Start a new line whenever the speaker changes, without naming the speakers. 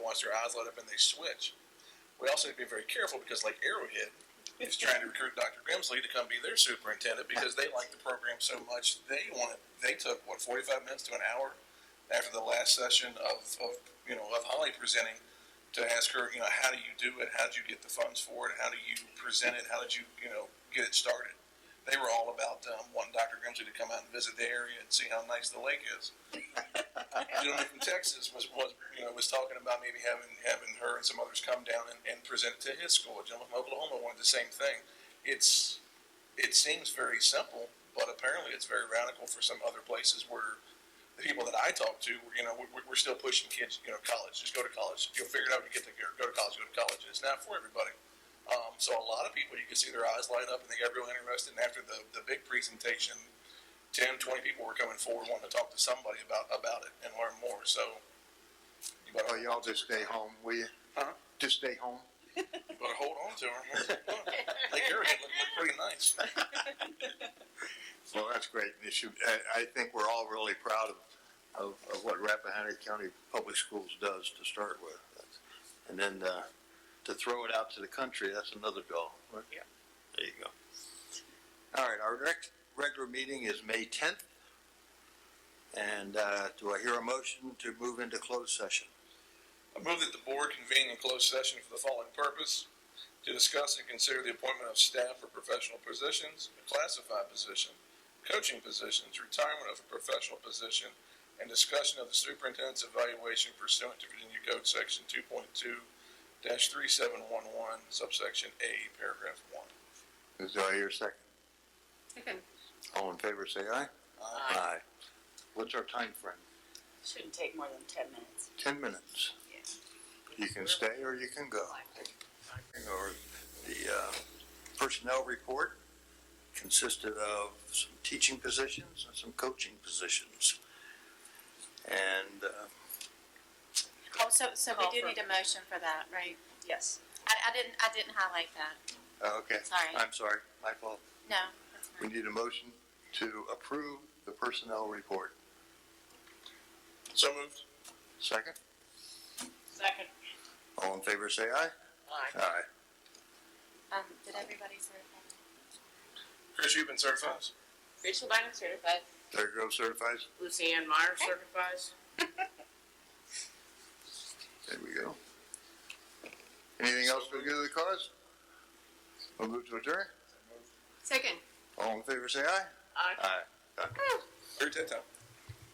once their eyes light up and they switch. We also need to be very careful because, like Arrowhead, is trying to recruit Dr. Grimsley to come be their superintendent because they like the program so much. They wanted. They took what forty-five minutes to an hour after the last session of, of you know of Holly presenting to ask her, you know, how do you do it? How did you get the funds for it? How do you present it? How did you you know get it started? They were all about um, wanting Dr. Grimsley to come out and visit the area and see how nice the lake is. A gentleman from Texas was, was you know was talking about maybe having having her and some others come down and, and present it to his school. A gentleman from Oklahoma wanted the same thing. It's it seems very simple, but apparently it's very radical for some other places where the people that I talk to, you know, we're, we're still pushing kids, you know, college. Just go to college. You'll figure it out when you get there. Go to college. Go to college. It's not for everybody. Um, so a lot of people, you can see their eyes light up and they got real interested. And after the, the big presentation, 10, 20 people were coming forward wanting to talk to somebody about about it and learn more. So you better,
Well, Oh, y'all just stay home, will you?
Huh?
Just stay home.
you better hold on to them. Like your head looked looked pretty nice.
Well, that's great. And it should, I, I think we're all really proud of, of, of what Rappahannock County Public Schools does to start with. And then, uh, to throw it out to the country, that's another goal.
Yeah.
There you go. All right, our next regular meeting is May tenth. And, uh, do I hear a motion to move into closed session?
I move that the board convene in closed session for the following purpose: to discuss and consider the appointment of staff for professional positions, a classified position, coaching positions, retirement of a professional position, and discussion of the superintendent's evaluation pursuant to Virginia Code Section two point two three seven one one, subsection A, paragraph one.
Is there, I hear a second? All in favor, say aye.
Aye.
What's our time frame?
Shouldn't take more than ten minutes.
Ten minutes. You can stay or you can go. Or the uh, personnel report consisted of some teaching positions and some coaching positions. And uh,
Oh, so, so
Call
we do
for-
need a motion for that, right?
Yes.
I, I didn't, I didn't highlight that.
Oh, Okay.
Sorry.
I'm sorry, my fault.
No, that's
We
fine.
need a motion to approve the personnel report.
So moved.
Second,
Second.
all in favor, say aye.
Aye.
Aye.
Um, did everybody certify?
Chris, you've been certified?
Rachel Bynum certified.
There goes certifies.
Lucy Ann Meyer certifies.
There we go. Anything else for the good of the cause? We'll move to adjourn.
Second.
All in favor, say aye.
Aye.
Aye.
Third time.